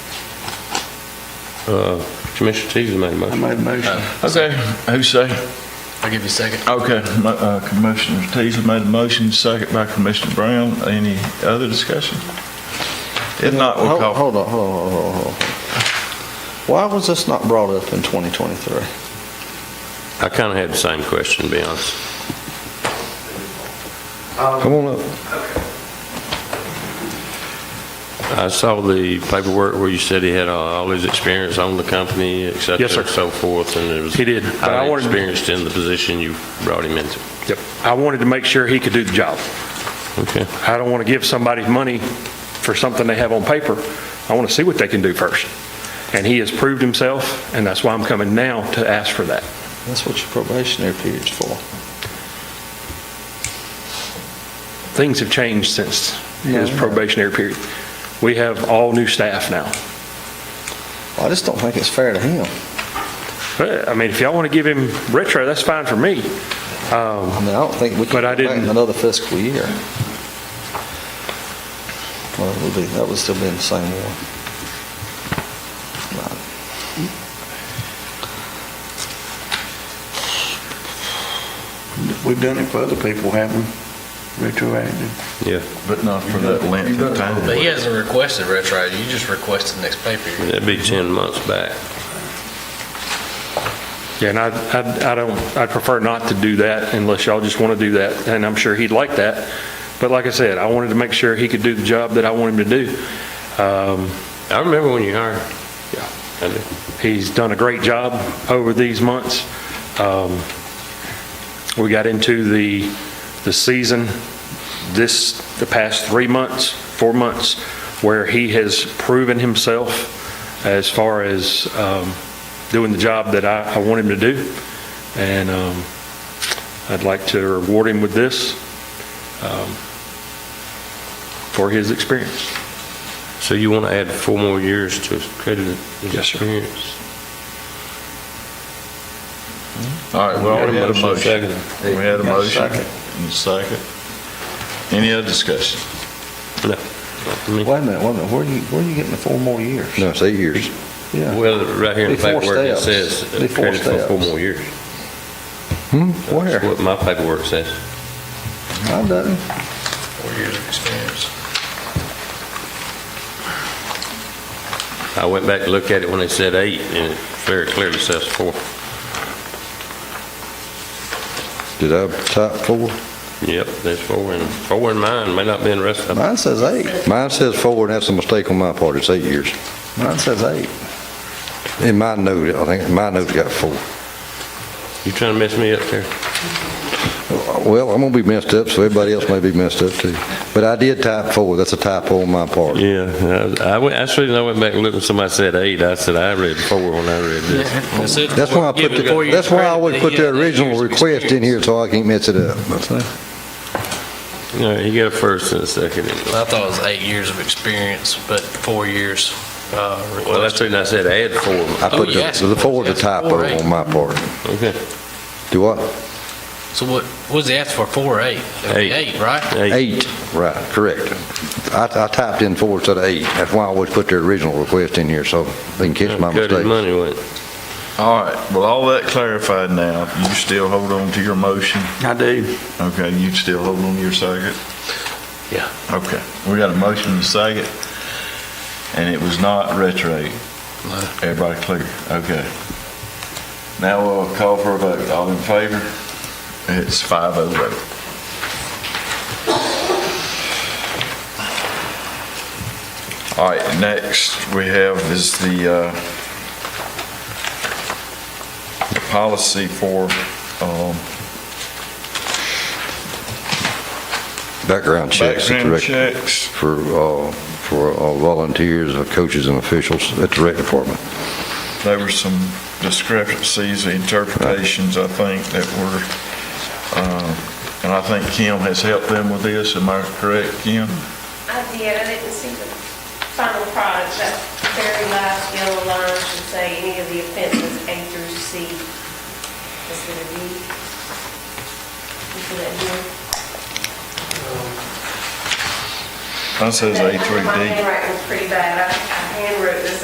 Uh, Commissioner Teasley made a I motion. made a motion. Okay, who say? I'll give you a second. Okay, mo- uh, Commissioner Teasley made a motion, second by Commissioner Brown. Any other discussion? If Uh, not, we'll Hold, call. hold on, hold on, hold on, hold on. Why was this not brought up in 2023? I kind of had the same question, to be honest. Come on up. I saw the paperwork where you said he had uh, all his experience on the company, et cetera, Yes, sir. and so forth, and it was. He did, but I highly wanted- Experienced in the position you brought him into. Yep. I wanted to make sure he could do the job. Okay. I don't want to give somebody money for something they have on paper. I want to see what they can do first. And he has proved himself, and that's why I'm coming now to ask for that. That's what your probationary period's for. Things have changed since his Yeah. probationary period. We have all new staff now. I just don't think it's fair to him. But, I mean, if y'all want to give him retro, that's fine for me. I mean, I don't think we can But I go back didn't- another fiscal year. Well, it would be, that would still be in the same one. Right. We've done it for other people, haven't we? Retroactive. Yeah, But not for that length of time. But he hasn't requested retro, you just requested the next pay period. that'd be 10 months back. Yeah, and I, I I don't, I'd prefer not to do that unless y'all just want to do that, and I'm sure he'd like that. But like I said, I wanted to make sure he could do the job that I want him to do. Um, I remember when you hired. Yeah. I do. He's done a great job over these months. Um, We got into the, the season this, the past three months, four months, where he has proven himself as far as um, doing the job that I, I want him to do. And um, I'd like to reward him with this um, for his experience. So you want to add four more years to his credit? his Yes, sir. experience? All right, we already had a motion. Second. We had a Got a motion. second. And a second. Any other discussion? No. I mean, Wait a minute, wait a minute, where are you, where are you getting the four more years? No, it's eight years. Yeah, Well, right here in the Before paperwork, it steps. says uh, Before credit for four steps. more years. That's Hmm? where? what my paperwork says. I doesn't. Four years of experience. I went back to look at it when they said eight, and it very clearly says four. Did I type four? Yep, there's four, and four in mine, may not be in the rest of them. Mine says eight, Mine says four, and that's a mistake on my part. It's eight years. mine says eight. In my note, I think, my note's got four. You trying to mess me up there? Well, I'm gonna be messed up, so everybody else may be messed up too. But I did type four. That's a typo on my part. Yeah, I went, actually, I went back and looked, and somebody said eight, I said, I read four when I read this. That's why I put the, that's why I always put the original request in here, so I can't mess it up. All right, you got a first and a second. I thought it was eight years of experience, but four years uh, Well, that's requested. when I said add four. I put the, the four's a typo on my part. Okay, Do what? So what, what was he asking for, four or eight? It'd be Eight. Eight, right? eight. Eight, right, correct. I, I typed in four instead of eight. That's why I always put the original request in here, so they can catch my Cut his mistake. money with it. All right, well, all that clarified now. You still hold on to your motion? I do. Okay, you still hold on to your second? Yeah. Okay, we got a motion to second, and it was not retro. Everybody clear? Okay. Now we'll call for a vote. All in favor? It's five oh vote. All right, next we have is the, uh, the policy for, um, Background checks. at the Background rec- checks. For, uh, for uh, volunteers, uh, coaches and officials at the rec department. there were some discrepancies, interpretations, I think, that were, uh, and I think Kim has helped them with this, am I correct, Kim? I did, I didn't see the final product, that very last yellow line should say any of the offenses A through C instead of D. You see that here? Mine says A My through D. handwriting was pretty bad, I I handwrote this